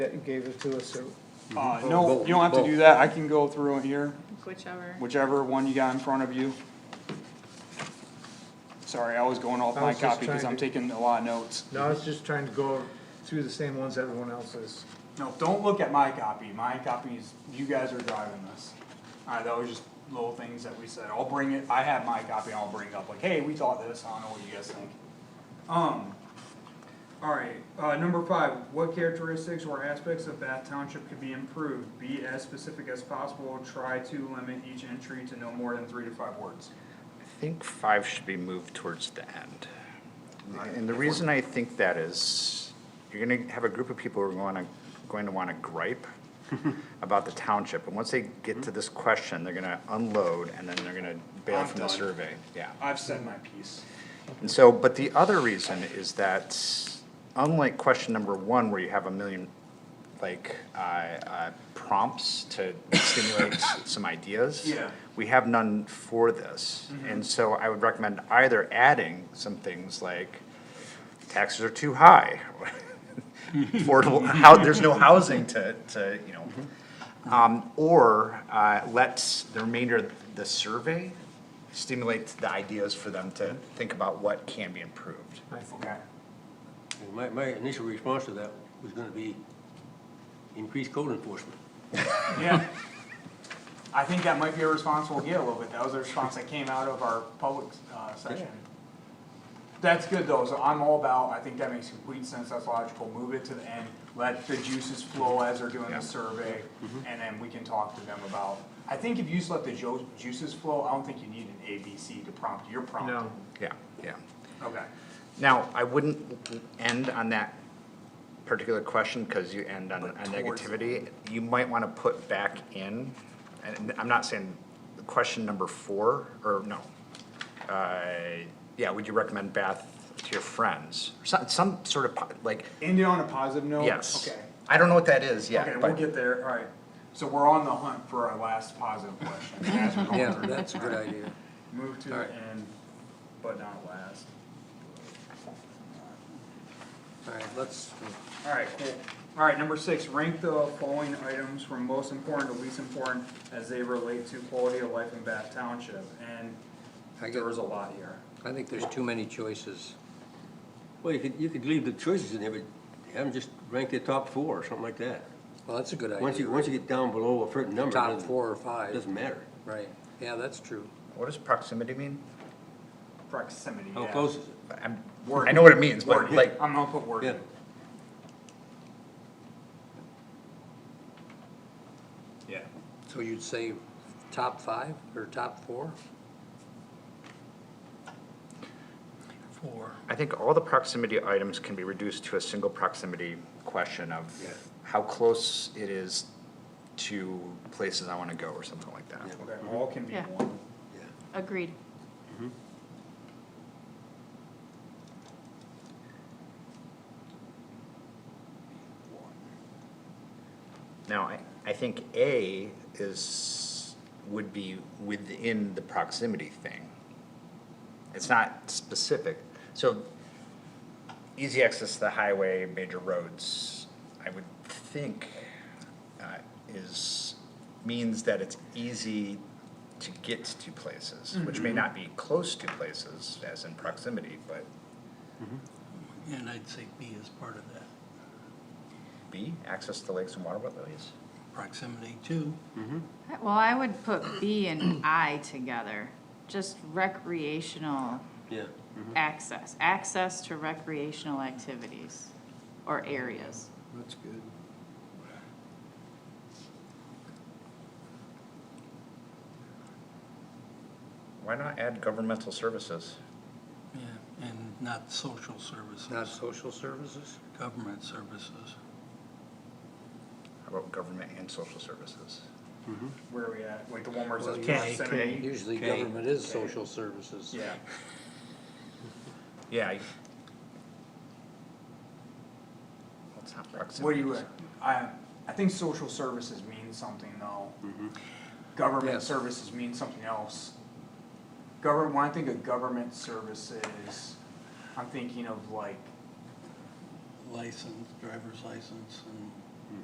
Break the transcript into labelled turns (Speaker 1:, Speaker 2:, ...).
Speaker 1: it and gave it to us, or,
Speaker 2: Uh, no, you don't have to do that, I can go through it here,
Speaker 3: Whichever.
Speaker 2: whichever one you got in front of you. Sorry, I was going off
Speaker 1: I
Speaker 2: my
Speaker 1: was just
Speaker 2: copy because
Speaker 1: trying
Speaker 2: I'm
Speaker 1: to-
Speaker 2: taking a lot of notes.
Speaker 1: no, I was just trying to go through the same ones everyone else is.
Speaker 2: No, don't look at my copy, my copy is, you guys are driving this. Alright, that was just little things that we said, I'll bring it, I have my copy, I'll bring it up, like, hey, we thought this, I don't know what you guys think. Um, alright, uh, number five, what characteristics or aspects of Bath Township could be improved? Be as specific as possible, try to limit each entry to no more than three to five words.
Speaker 4: I think five should be moved towards the end. And the reason I think that is, you're gonna have a group of people who are gonna, going to wanna gripe about the township, and once they get to this question, they're gonna unload, and then they're gonna bail
Speaker 2: I'm
Speaker 4: from the
Speaker 2: done.
Speaker 4: survey, yeah.
Speaker 2: I've said my piece.
Speaker 4: And so, but the other reason is that unlike question number one, where you have a million, like, uh, uh, prompts to stimulate some ideas.
Speaker 2: Yeah.
Speaker 4: We have none for this, and so I would recommend either adding some things like taxes are too high. Affordable, how, there's no housing to, to, you know. Um, or, uh, let the remainder of the survey stimulate the ideas for them to think about what can be improved.
Speaker 2: Okay.
Speaker 5: And My, my initial response to that was gonna be increased code enforcement.
Speaker 2: Yeah. I think that might be a response we'll get a little bit. That was a response that came out of our public, uh, session. That's good though, so I'm all about, I think that makes complete sense, that's logical, move it to the end, let the juices flow as they're doing
Speaker 4: Yeah. Mm-hmm.
Speaker 2: the survey, and then we can talk to them about. I think if you just let the jo- juices flow, I don't think you need an A, B, C to prompt, you're prompting.
Speaker 1: No,
Speaker 4: Yeah, yeah.
Speaker 2: Okay,
Speaker 4: Now, I wouldn't end on that particular question, cause you end on a
Speaker 2: But towards-
Speaker 4: negativity. You might wanna put back in, and I'm not saying question number four, or no. Uh, yeah, would you recommend bath to your friends? Some, some sort of, po- like,
Speaker 2: end it on a positive note?
Speaker 4: yes.
Speaker 2: Oh, Okay.
Speaker 4: I don't know what that is
Speaker 2: Okay,
Speaker 4: yet,
Speaker 2: we'll
Speaker 4: but,
Speaker 2: get there, alright. So we're on the hunt for our last positive question as we're going
Speaker 5: Yeah,
Speaker 2: through.
Speaker 5: that's a good idea.
Speaker 2: Move to the
Speaker 5: Alright.
Speaker 2: end, but not last.
Speaker 5: All right, let's,
Speaker 2: Alright, cool. Alright, number six, rank the following items from most important to least important as they relate to quality of life in Bath Township, and
Speaker 5: I
Speaker 2: there
Speaker 5: get,
Speaker 2: was a lot here.
Speaker 5: I think there's too many choices. Well, you could, you could leave the choices in there, but have them just rank the top four or something like that.
Speaker 6: Well, that's a good
Speaker 5: Once
Speaker 6: idea.
Speaker 5: you, once you get down below a certain number,
Speaker 6: Top
Speaker 5: it
Speaker 6: four or
Speaker 5: doesn't,
Speaker 6: five,
Speaker 5: doesn't matter.
Speaker 6: right. Yeah, that's true.
Speaker 4: what does proximity mean?
Speaker 2: Proximity, yeah.
Speaker 5: How Oh, close is it?
Speaker 4: I'm,
Speaker 2: Word.
Speaker 4: I know what it means, but
Speaker 2: Wording.
Speaker 4: like,
Speaker 2: I'm gonna put word.
Speaker 5: Yeah.
Speaker 2: Yeah.
Speaker 6: So you'd say top five or top four?
Speaker 4: I think all the proximity items can be reduced to a single proximity question of
Speaker 5: Yeah.
Speaker 4: how close it is to places I wanna go or something like that.
Speaker 5: Yeah.
Speaker 2: Okay, all can be
Speaker 3: Yeah.
Speaker 2: one.
Speaker 5: Yeah.
Speaker 3: Agreed.
Speaker 4: Now, I, I think A is, would be within the proximity thing. It's not specific, so easy access to the highway, major roads, I would think, uh, is, means that it's easy to get to places, which may not be close to places as in proximity, but
Speaker 7: And I'd say B is part of that,
Speaker 4: B, access to lakes and water waterways.
Speaker 7: proximity to.
Speaker 3: Well, I would put B and I together, just recreational
Speaker 5: Yeah,
Speaker 3: access, access to recreational activities or areas.
Speaker 5: that's good.
Speaker 4: Why not add governmental services?
Speaker 7: Yeah. And not social
Speaker 6: Not
Speaker 7: services,
Speaker 6: social services?
Speaker 7: government services.
Speaker 4: How about government and social services?
Speaker 2: Where are we at? Like the one where it says
Speaker 6: Well,
Speaker 7: K,
Speaker 2: proximity?
Speaker 6: Usually
Speaker 5: Okay.
Speaker 6: government is social services.
Speaker 2: Yeah.
Speaker 4: Yeah. I- Well, it's not proximity.
Speaker 2: What do you,
Speaker 4: so-
Speaker 2: I, I think social services means something though. Government
Speaker 5: Yes.
Speaker 2: services mean something else. Government, when I think of government services, I'm thinking of like,
Speaker 7: License, driver's license and